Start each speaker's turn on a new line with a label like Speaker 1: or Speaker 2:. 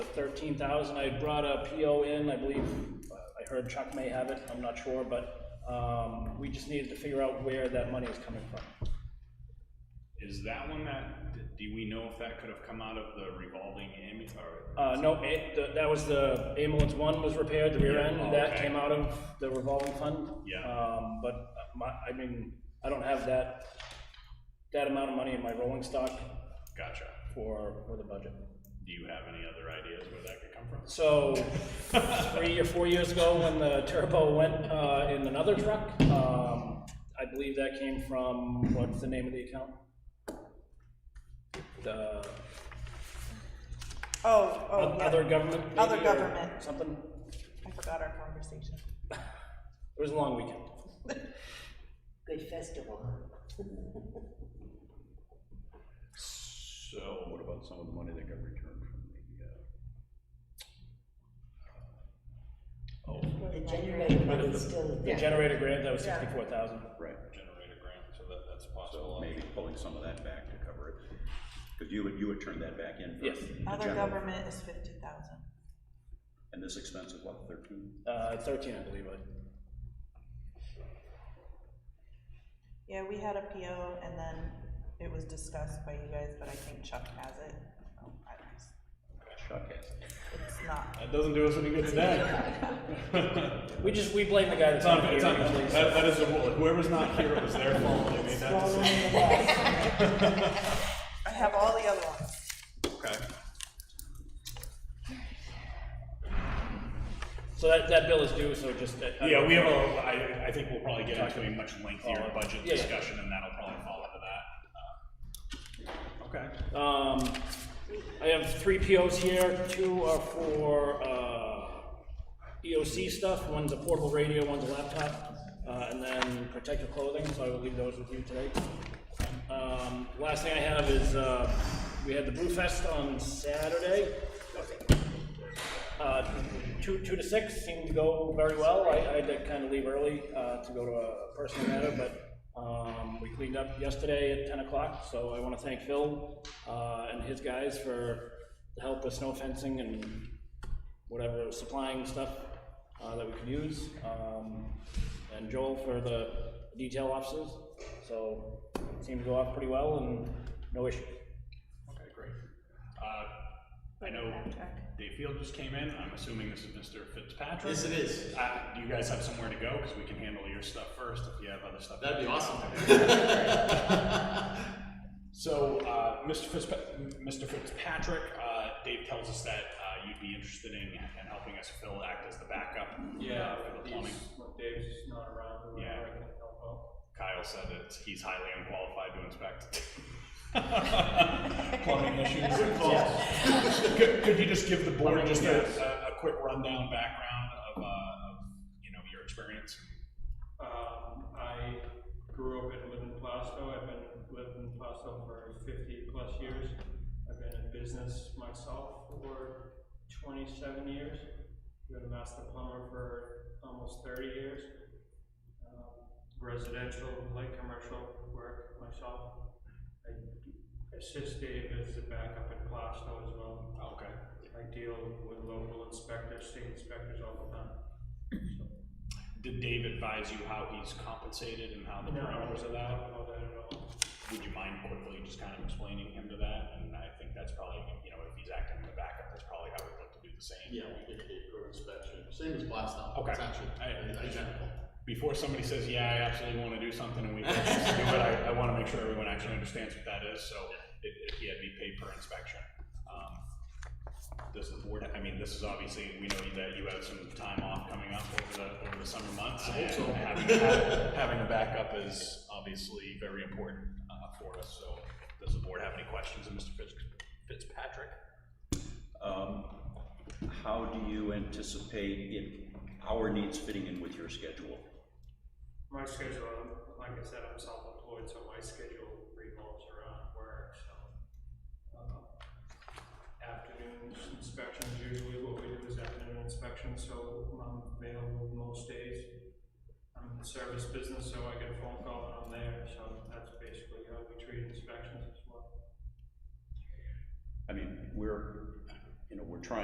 Speaker 1: thirteen thousand, I brought a PO in, I believe, uh, I heard Chuck may have it, I'm not sure, but, um, we just needed to figure out where that money is coming from.
Speaker 2: Is that one that, do we know if that could have come out of the revolving ambulance, or?
Speaker 1: Uh, no, it, the- that was the ambulance one was repaired, the rear
Speaker 2: Yeah,
Speaker 1: end, and that
Speaker 2: okay.
Speaker 1: came out of the revolving fund.
Speaker 2: Yeah.
Speaker 1: Um, but my, I mean, I don't have that, that amount of money in my rolling stock
Speaker 2: Gotcha.
Speaker 1: for, for the budget.
Speaker 2: Do you have any other ideas where that could come from?
Speaker 1: So, three or four years ago, when the turbo went uh, in another truck, um, I believe that came from, what's the name of the account? The
Speaker 3: Oh, oh, yeah.
Speaker 1: other government? maybe,
Speaker 3: Other
Speaker 1: or
Speaker 3: government.
Speaker 1: Something,
Speaker 3: I forgot our conversation.
Speaker 1: it was a long weekend.
Speaker 4: Good festival.
Speaker 2: So what about some of the money that got returned from the, uh? Oh,
Speaker 4: The generator one is still
Speaker 1: The
Speaker 4: there.
Speaker 1: generator grant, that was
Speaker 3: Yeah.
Speaker 1: sixty-four thousand.
Speaker 5: Right,
Speaker 2: generator grant, so that, that's possible.
Speaker 5: uh, so maybe pulling some of that back to cover it, because you would, you would turn that back in. for
Speaker 1: Yes.
Speaker 5: the
Speaker 3: Other
Speaker 5: general.
Speaker 3: government is fifty thousand.
Speaker 5: And this expense is what, thirteen?
Speaker 1: Uh, thirteen, I believe, I-
Speaker 3: Yeah, we had a PO and then it was discussed by you guys, but I think Chuck has it. So, I don't-
Speaker 5: Chuck has it.
Speaker 3: It's not,
Speaker 2: That doesn't do us any good today.
Speaker 1: we just, we blame the guy that's not here. usually, so-
Speaker 2: that is, whoever's not here, it was their fault, they made that
Speaker 4: Rolling
Speaker 2: decision.
Speaker 4: in the bus.
Speaker 3: I have all the other ones.
Speaker 2: Okay.
Speaker 1: So that, that bill is due, so just. uh, I- I-
Speaker 2: Yeah, we have a, I, I think we'll probably get into a much lengthier budget
Speaker 1: Yeah, yeah.
Speaker 2: discussion, and that'll probably fall into that. uh, Okay.
Speaker 1: Um, I have three POs here, two are for, uh, EOC stuff, one's a portable radio, one's a laptop, uh, and then protective clothing, so I will leave those with you today. Um, last thing I have is, uh, we had the Brew Fest on Saturday. Uh, two, two to six seemed to go very well, I, I had to kind of leave early, uh, to go to a personal matter, but, um, we cleaned up yesterday at ten o'clock, so I wanna thank Phil, uh, and his guys for the help with snow fencing and whatever, supplying stuff, uh, that we could use, um, and Joel for the detail officers, so it seemed to go off pretty well and no issue.
Speaker 2: Okay, great. Uh, I know Dave Field just came in, I'm assuming this is Mr. Fitzpatrick?
Speaker 6: Yes, it is.
Speaker 2: Uh, do you guys have somewhere to go, because we can handle your stuff first if you have other stuff.
Speaker 6: That'd be awesome.
Speaker 2: So, uh, Mr. Fitzpa- Mr. Fitzpatrick, uh, Dave tells us that, uh, you'd be interested in, in helping us Phil act as the backup. uh,
Speaker 7: Yeah,
Speaker 2: For the
Speaker 7: he's-
Speaker 2: plumbing.
Speaker 7: when Dave's not around, we
Speaker 2: Yeah.
Speaker 7: I can help out.
Speaker 2: Kyle said it's, he's highly unqualified to inspect. Plumbing issues. Could, could you just give the board just a, a, a quick rundown background of, uh, of, you know, your experience?
Speaker 7: Um, I grew up and lived in Plastow, I've been, lived in Plastow for fifty plus years. I've been in business myself for twenty-seven years. Been a master plumber for almost thirty years. Um, Residential, light commercial work myself. I assist Dave as a backup in Plastow as well.
Speaker 2: Okay.
Speaker 7: I deal with local inspectors, state inspectors all the time.
Speaker 2: Did Dave advise you how he's compensated and how the parameters of that?
Speaker 7: All that at all.
Speaker 2: Would you mind quickly just kind of explaining him to that? And I think that's probably, you know, if he's acting in the backup, that's probably how we'd look to do the same.
Speaker 6: Yeah, we did a gate code inspection, same as Blastoff.
Speaker 2: Okay.
Speaker 6: It's actually
Speaker 2: I- I-
Speaker 6: identical.
Speaker 2: before somebody says, yeah, I absolutely want to do something and we want you to do it, I, I want to make sure everyone actually understands what that is, so it, it, yeah, it'd be paid per inspection. Um, Does the board, I mean, this is obviously, we know that you have some time off coming up over the, over the summer months.
Speaker 6: I hope so.
Speaker 2: and Having, ha- having a backup is obviously very important, uh, for us, so does the board have any questions of Mr. Fitz, Fitzpatrick?
Speaker 5: Um, How do you anticipate it, our needs fitting in with your schedule?
Speaker 7: My schedule, I'm- like I said, I'm self-employed, so my schedule revolves around work, so. um, Afternoon inspections, usually what we do is afternoon inspections, so I'm available most days. I'm in the service business, so I get a phone call and I'm there, so that's basically how we treat inspections as well.
Speaker 5: I mean, we're, you know, we're trying